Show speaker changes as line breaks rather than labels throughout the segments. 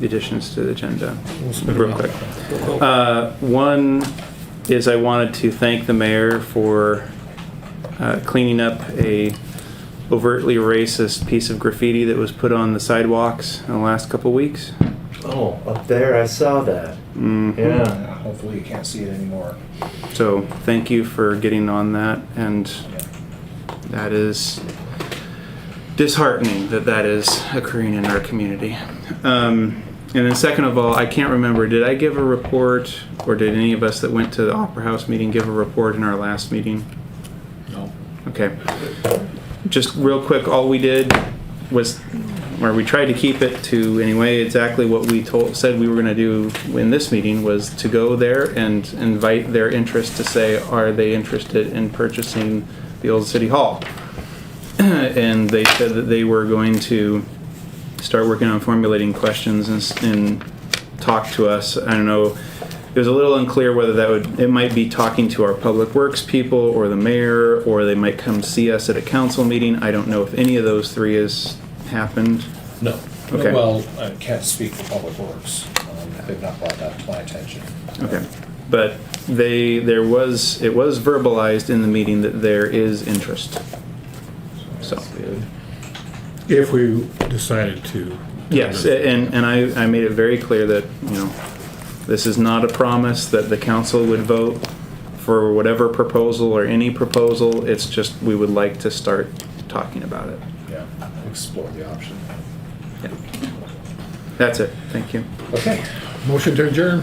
the additions to the agenda real quick. Uh, One is I wanted to thank the mayor for uh, cleaning up a overtly racist piece of graffiti that was put on the sidewalks in the last couple weeks.
Oh, up there, I saw that.
Mm-hmm.
Yeah.
Yeah, hopefully you can't see it anymore.
So thank you for getting on that, and that is disheartening that that is occurring in our community. Um, and then second of all, I can't remember, did I give a report, or did any of us that went to the Opera House meeting give a report in our last meeting?
No.
Okay. Just real quick, all we did was, or we tried to keep it to anyway, exactly what we told, said we were gonna do in this meeting was to go there and invite their interest to say, are they interested in purchasing the old city hall? And they said that they were going to start working on formulating questions and, s- and talk to us. I don't know. It was a little unclear whether that would, it might be talking to our public works people or the mayor, or they might come see us at a council meeting. I don't know if any of those three has happened.
No.
Okay.
Well, I can't speak for Public Works. Um, They've not brought that to my attention.
Okay. But they, there was, it was verbalized in the meeting that there is interest. So,
If we decided to.
yes, a- and, and I, I made it very clear that, you know, this is not a promise that the council would vote for whatever proposal or any proposal. It's just, we would like to start talking about it.
Yeah, explore the option.
That's it. Thank you.
Okay.
Motion to adjourn.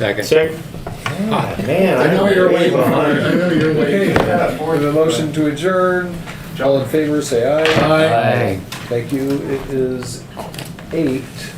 Ah,
Man, I
I know you're
way
waiting.
behind.
I know you're
Okay,
waiting.
yeah, for the motion to adjourn, all in favor, say aye.
Aye.
Thank you. It is eight